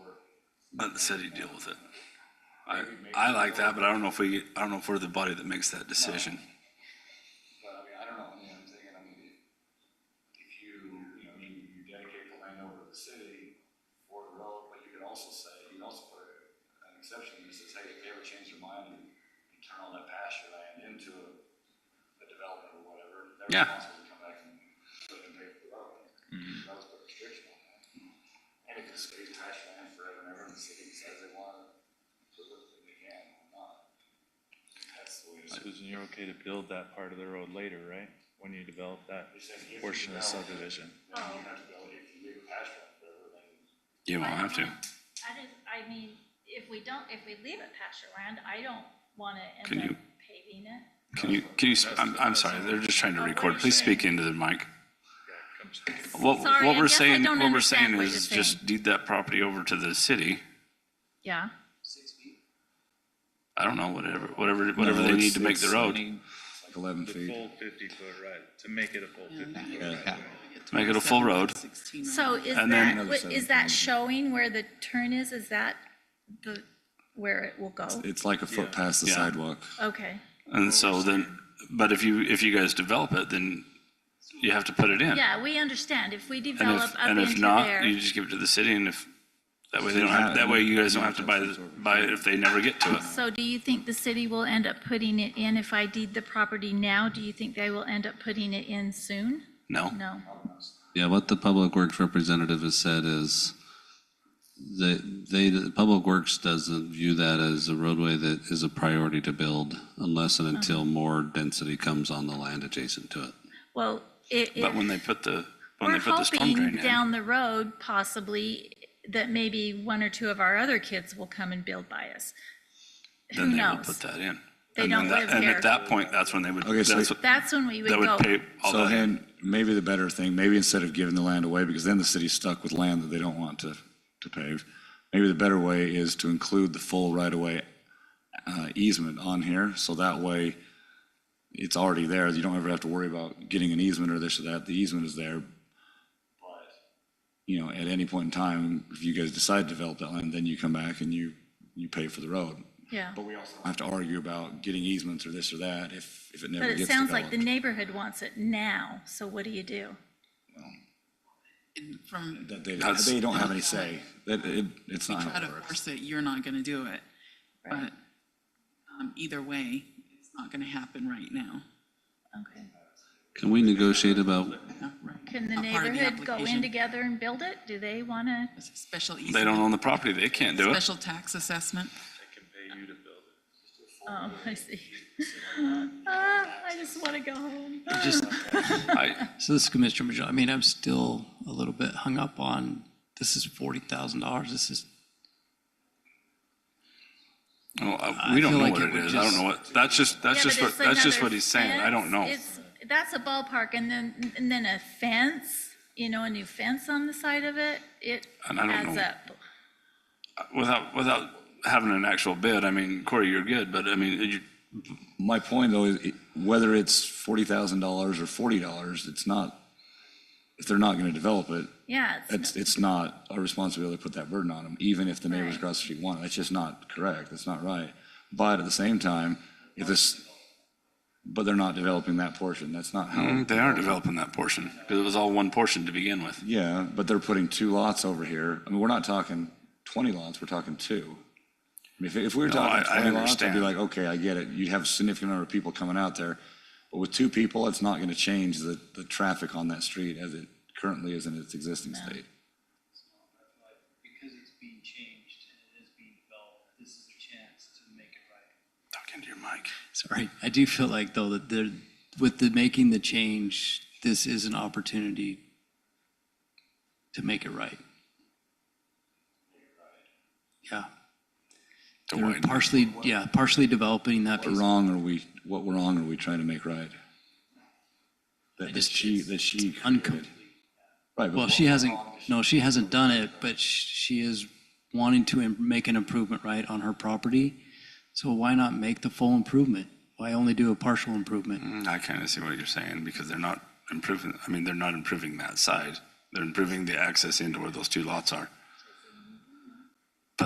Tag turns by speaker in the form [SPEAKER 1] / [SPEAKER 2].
[SPEAKER 1] Let the city deal with it. I, I like that, but I don't know if we, I don't know if we're the body that makes that decision.
[SPEAKER 2] But I mean, I don't know, I mean, I'm thinking, I mean, if you, you know, you, you dedicate the land over to the city for the road, but you could also say, you can also put an exception that says, hey, if they ever change their mind and you turn all that pasture land into a, a development or whatever, they're
[SPEAKER 1] Yeah.
[SPEAKER 2] responsible to come back and put and pay for the road. That was put restriction on that. And if it's space pasture land forever and ever, and the city decides they want to, they can, or not. That's the way it's.
[SPEAKER 3] Susan, you're okay to build that part of the road later, right? When you develop that portion of the subdivision?
[SPEAKER 2] Then you have to go, if you leave a pasture land forever, then
[SPEAKER 1] You don't have to.
[SPEAKER 4] I just, I mean, if we don't, if we leave it pasture land, I don't wanna
[SPEAKER 1] Can
[SPEAKER 4] end up
[SPEAKER 1] you-
[SPEAKER 4] paving it.
[SPEAKER 1] Can you, can you, sp- I'm, I'm sorry, they're just trying to record. Please speak into the mic. What,
[SPEAKER 4] Sorry,
[SPEAKER 1] what
[SPEAKER 4] I
[SPEAKER 1] we're
[SPEAKER 4] guess I
[SPEAKER 1] saying,
[SPEAKER 4] don't
[SPEAKER 1] what we're
[SPEAKER 4] understand
[SPEAKER 1] saying
[SPEAKER 4] what
[SPEAKER 1] is
[SPEAKER 4] you're saying.
[SPEAKER 1] just deed that property over to the city.
[SPEAKER 4] Yeah.
[SPEAKER 1] I don't know, whatever, whatever, whatever they need to make the road.
[SPEAKER 5] Eleven
[SPEAKER 3] The
[SPEAKER 5] feet.
[SPEAKER 3] full fifty foot right, to make it a full fifty foot.
[SPEAKER 5] Yeah.
[SPEAKER 1] Make it a full road.
[SPEAKER 4] So is
[SPEAKER 1] And then-
[SPEAKER 4] that, what- is that showing where the turn is? Is that the, where it will go?
[SPEAKER 5] It's like a foot past the
[SPEAKER 1] Yeah.
[SPEAKER 5] sidewalk.
[SPEAKER 4] Okay,
[SPEAKER 1] And so then, but if you, if you guys develop it, then you have to put it in.
[SPEAKER 4] yeah, we understand. If we
[SPEAKER 1] And
[SPEAKER 4] develop
[SPEAKER 1] if,
[SPEAKER 4] up
[SPEAKER 1] and if
[SPEAKER 4] into
[SPEAKER 1] not, you
[SPEAKER 4] there,
[SPEAKER 1] just give it to the city and if, that way they don't
[SPEAKER 5] Yeah.
[SPEAKER 1] have, that way you guys don't have to buy, the- buy it if they never get to it.
[SPEAKER 4] so do you think the city will end up putting it in? If I deed the property now, do you think they will end up putting it in soon?
[SPEAKER 1] No?
[SPEAKER 4] No.
[SPEAKER 6] Yeah, what the Public Works representative has said is they, they, the Public Works doesn't view that as a roadway that is a priority to build unless and until more density comes on the land adjacent to it.
[SPEAKER 4] Well, it,
[SPEAKER 1] But when
[SPEAKER 4] it,
[SPEAKER 1] they put the, when they
[SPEAKER 4] we're
[SPEAKER 1] put the storm drain
[SPEAKER 4] hoping
[SPEAKER 1] in,
[SPEAKER 4] down the road possibly that maybe one or two of our other kids will come and build by us. Who
[SPEAKER 1] then they will put
[SPEAKER 4] knows?
[SPEAKER 1] that in.
[SPEAKER 4] They
[SPEAKER 1] And then
[SPEAKER 4] don't
[SPEAKER 1] that-
[SPEAKER 4] live
[SPEAKER 1] And
[SPEAKER 4] here.
[SPEAKER 1] at that point, that's when they would,
[SPEAKER 5] Okay, so-
[SPEAKER 1] that's, what-
[SPEAKER 4] That's when we would
[SPEAKER 1] that
[SPEAKER 4] go.
[SPEAKER 1] would pay all
[SPEAKER 5] So
[SPEAKER 1] that.
[SPEAKER 5] then, maybe the better thing, maybe instead of giving the land away, because then the city's stuck with land that they don't want to, to pave. Maybe the better way is to include the full right-of-way uh, easement on here, so that way it's already there. You don't ever have to worry about getting an easement or this or that. The easement is there. You know, at any point in time, if you guys decide to develop that land, then you come back and you, you pay for the road.
[SPEAKER 4] Yeah,
[SPEAKER 2] But we also,
[SPEAKER 5] I have to argue about getting easements or this or that if, if it never
[SPEAKER 4] but
[SPEAKER 5] gets
[SPEAKER 4] it
[SPEAKER 5] developed.
[SPEAKER 4] sounds like the neighborhood wants it now, so what do you do?
[SPEAKER 7] And From
[SPEAKER 5] That they,
[SPEAKER 1] That's-
[SPEAKER 5] they don't have any say. That, it, it's not
[SPEAKER 7] try
[SPEAKER 5] how
[SPEAKER 7] to
[SPEAKER 5] it works.
[SPEAKER 7] force it, you're not gonna do it. But, um, either way, it's not gonna happen right now.
[SPEAKER 4] Okay.
[SPEAKER 6] Can we negotiate about,
[SPEAKER 7] Not right-
[SPEAKER 4] Can the
[SPEAKER 7] not part
[SPEAKER 4] neighborhood go
[SPEAKER 7] of
[SPEAKER 4] in
[SPEAKER 7] application.
[SPEAKER 4] together and build it? Do they want to?
[SPEAKER 7] It's a Special
[SPEAKER 1] They don't
[SPEAKER 7] easement,
[SPEAKER 1] own the property, they can't do it.
[SPEAKER 7] special tax assessment.
[SPEAKER 4] Oh, I see. Ah, I just want to go home.
[SPEAKER 8] Just,
[SPEAKER 1] I,
[SPEAKER 8] so this is Commissioner Major, I mean, I'm still a little bit hung up on, this is forty thousand dollars, this is,
[SPEAKER 1] well, I-
[SPEAKER 8] I
[SPEAKER 1] we don't
[SPEAKER 8] feel
[SPEAKER 1] know
[SPEAKER 8] like
[SPEAKER 1] what
[SPEAKER 8] it
[SPEAKER 1] it
[SPEAKER 8] would
[SPEAKER 1] is, I don't
[SPEAKER 8] just-
[SPEAKER 1] know what, that's just, that's
[SPEAKER 4] Yeah,
[SPEAKER 1] just
[SPEAKER 4] but
[SPEAKER 1] what,
[SPEAKER 4] it's
[SPEAKER 1] that's just
[SPEAKER 4] another
[SPEAKER 1] what he's saying, I don't know.
[SPEAKER 4] fence. It's- That's a ballpark, and then, and then a fence, you know, a new fence on the side of it, it
[SPEAKER 1] And I don't
[SPEAKER 4] adds
[SPEAKER 1] know.
[SPEAKER 4] up.
[SPEAKER 1] Without, without having an actual bid, I mean, Corey, you're good, but I mean, you,
[SPEAKER 5] My point though is it- whether it's forty thousand dollars or forty dollars, it's not, if they're not gonna develop it,
[SPEAKER 4] Yeah,
[SPEAKER 5] it's,
[SPEAKER 4] it's,
[SPEAKER 5] it's not our responsibility to put that burden on them, even if the neighbors
[SPEAKER 4] Right.
[SPEAKER 5] across the street want it. That's just not correct. That's not right. But at the same time, if this, but they're not developing that portion. That's not how.
[SPEAKER 1] Mm, They are developing that portion, because it was all one portion to begin with.
[SPEAKER 5] Yeah, but they're putting two lots over here. I mean, we're not talking 20 lots, we're talking two. I mean, if, if we were
[SPEAKER 1] I-
[SPEAKER 5] talking
[SPEAKER 1] I
[SPEAKER 5] 20 lots, I'd be
[SPEAKER 1] understand.
[SPEAKER 5] like, okay, I get it. You'd have a significant number of people coming out there. But with two people, it's not going to change the, the traffic on that street as it currently is in its existing state.
[SPEAKER 9] because it's being changed and it is being developed, this is a chance to make it right.
[SPEAKER 1] Talk into your mic.
[SPEAKER 8] sorry. I do feel like though that there, with the making the change, this is an opportunity to make it right. Yeah,
[SPEAKER 1] To
[SPEAKER 8] they're
[SPEAKER 1] widen.
[SPEAKER 8] partially, yeah, partially developing that
[SPEAKER 5] What
[SPEAKER 8] piece.
[SPEAKER 5] wrong are we, what wrong are we trying to make right? That that
[SPEAKER 8] just-
[SPEAKER 5] she, that she
[SPEAKER 8] uncom-
[SPEAKER 5] created. Right,
[SPEAKER 8] Well,
[SPEAKER 5] but
[SPEAKER 8] she hasn't, no, she hasn't done it, but sh- she is wanting to im- make an improvement, right, on her property. So why not make the full improvement? Why only do a partial improvement?
[SPEAKER 1] Mm, I kind of see what you're saying, because they're not improving, I mean, they're not improving that side. They're improving the access into where those two lots are.